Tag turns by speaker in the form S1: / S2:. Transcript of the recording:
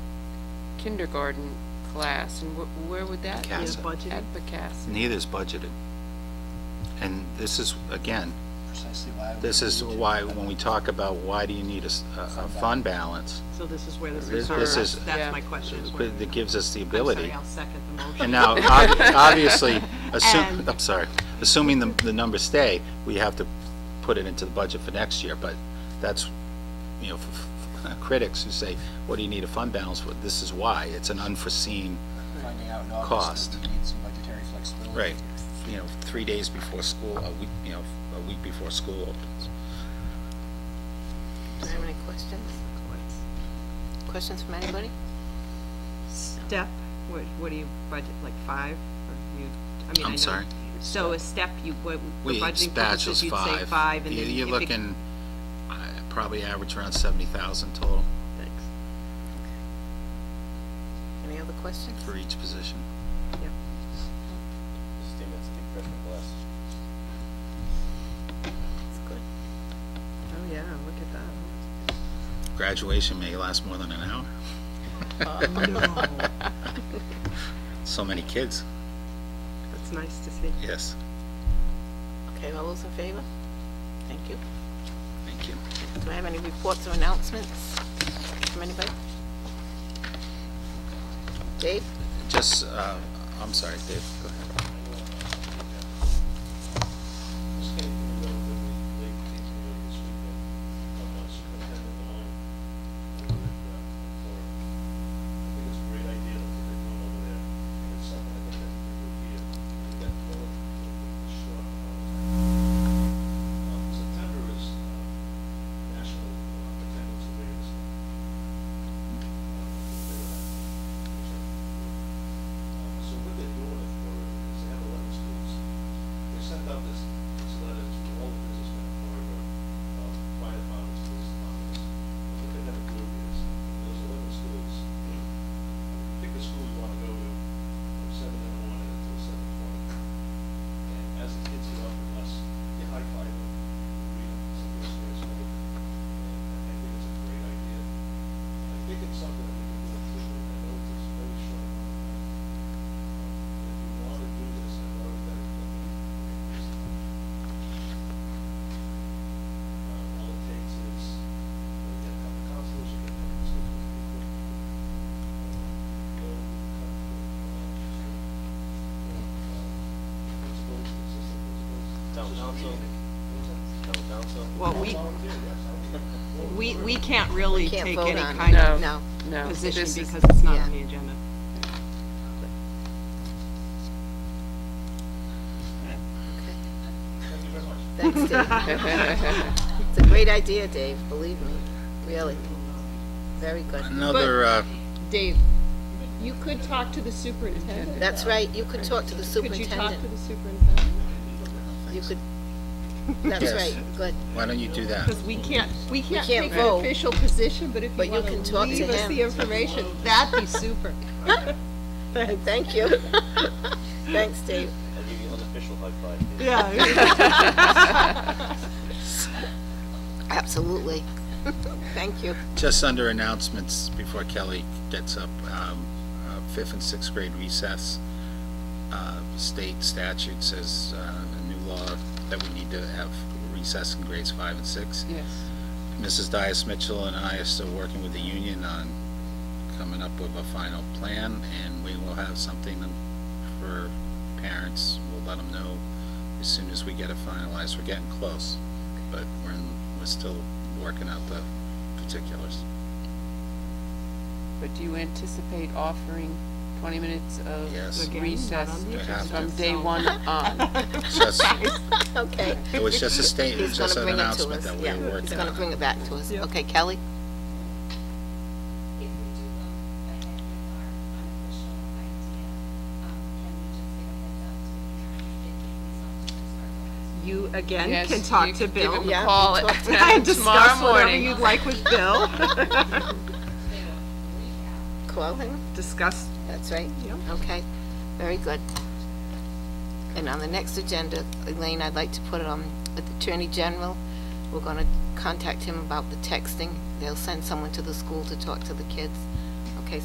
S1: kindergarten class, and wh- where would that be?
S2: Casa.
S3: Budgeted.
S1: At Pecassett.
S2: Neither's budgeted. And this is, again,
S4: Precisely why. we
S2: this is
S4: need to-
S2: why, when we talk about why do you need a, s- a- a fund balance,
S3: So this is where this
S2: This-
S3: is,
S2: this is-
S3: that's my
S1: Yeah.
S3: question. is where-
S2: but that gives us the
S3: I'm
S2: ability.
S3: sorry, I'll second the motion.
S2: And now, ob- obviously, assume,
S3: And-
S2: I'm sorry, assuming the, the numbers stay, we have to put it into the budget for next year, but that's, you know, f- f- critics who say, what do you need a fund balance for? This is why, it's an unforeseen,
S4: Finding out in August
S2: Cost.
S4: that we need some budgetary flexibility.
S2: right, you know, three days before school, a week, you know, a week before school opens.
S5: Do you have any questions? Questions from anybody?
S3: Step, what, what do you budget, like five? Or you- I mean,
S2: I'm
S3: I know-
S2: sorry?
S3: So a step, you, what, for
S2: We,
S3: budgeting
S2: bachelor's
S3: purposes, you'd say
S2: five.
S3: five, and
S2: You-
S3: then
S2: You're
S3: if it-
S2: looking, I probably average around seventy thousand total
S3: Thanks.
S5: Any other questions?
S2: for each position.
S5: That's good.
S3: Oh, yeah, look at that.
S2: Graduation may last more than an hour. So many kids,
S3: That's nice to see.
S2: yes,
S5: Okay, all those in favor? Thank you.
S2: thank you.
S5: Do I have any reports or announcements from anybody? Dave?
S2: Just, uh, I'm sorry, Dave, go ahead.
S6: This came from a relatively late teacher meeting this weekend. I'm not superintendent alone. I think it's a great idea that they're going over there. I think It's something I think that we could be, we got to look short on. Um, September is um, National uh, Attendance Awareness. Month. Um, we're gonna- Um, So what they're doing it for is they have eleven schools they sent out this, this letter to all the businessmen in Florida, um, fire departments, police departments. And What they gotta do is, those eleven schools, pick the school you wanna go to, from seven in the morning until seven twenty. And as the kids get off the bus, you high five them, read them, some of their stories, right? And I think it's a great idea. And I think it's something that we can do, officially. I know it's a very short amount of time. If you wanna do this, I've already got it cooking. Um, all it takes is, you get a couple counselors, you get a couple schools, you get a Go, come to, uh, you know, uh, principals, assistant principals.
S7: Town
S6: Just
S7: council.
S6: reading it. What's that?
S7: town council.
S3: Well, we,
S6: Volunteer, yes, I would.
S3: we, we can't really
S5: Can't
S3: take
S5: vote
S3: any
S5: on it.
S3: kind of
S1: No.
S5: No.
S1: No,
S3: position
S1: this is-
S3: because it's not
S5: yeah.
S3: on the agenda.
S6: Thank you very much.
S5: Thanks, Dave. It's a great idea, Dave, believe me, really. Very good.
S2: Another, uh,
S8: Dave, you could talk to the superintendent.
S5: That's right, you could talk to the
S8: Could you talk to
S5: superintendent.
S8: the superintendent?
S5: You could, that's
S2: Yes.
S5: right, good.
S2: why don't you do that?
S8: Because we can't, we can't
S5: can't
S8: take an
S5: vote.
S8: official position, but if
S5: But
S8: you
S5: you
S8: want
S5: can talk to
S8: leave us
S5: him.
S8: the information, that'd be super.
S5: Thank you. Thanks, Dave.
S7: I'll give you an official high five.
S3: Yeah.
S5: Absolutely. Thank you.
S2: Just under announcements before Kelly gets up, um, uh, fifth and sixth grade recess. Uh, state statute says, uh, a new law that we need to have recess in grades five and six.
S1: Yes.
S2: Mrs. Dias Mitchell and I are still working with the union on coming up with a final plan, and we will have something for parents. We'll let them know as soon as we get it finalized. We're getting close, but we're, in- we're still working out the particulars.
S1: But do you anticipate offering 20 minutes
S2: Yes.
S1: of
S3: Again, not
S1: recess
S3: on the
S2: They have
S1: from
S2: to.
S1: day one on?
S2: Just,
S5: Okay.
S2: it was just a statement,
S5: He's
S2: just
S5: gonna
S2: an
S5: bring it to
S2: announcement
S5: us.
S2: that we
S5: Yeah,
S2: were
S5: he's
S2: working
S5: gonna
S2: on.
S5: bring it back to us.
S3: Yeah.
S5: Okay, Kelly?
S9: if we do go ahead with our unofficial idea, um, can we just give a heads up to the parents if these officers are going to?
S3: You, again,
S1: Yes,
S3: can talk
S1: you
S3: to
S1: could give him
S3: Bill.
S1: a
S5: Yeah,
S1: call
S5: we'll talk to
S3: And
S1: tomorrow
S3: discuss whatever
S1: morning.
S3: you'd like with Bill.
S9: They will freak out.
S5: Call him?
S3: Discuss
S5: That's right?
S3: Yep.
S5: Okay, very good. And on the next agenda, Elaine, I'd like to put it on with the Attorney General. We're gonna contact him about the texting. They'll send someone to the school to talk to the kids.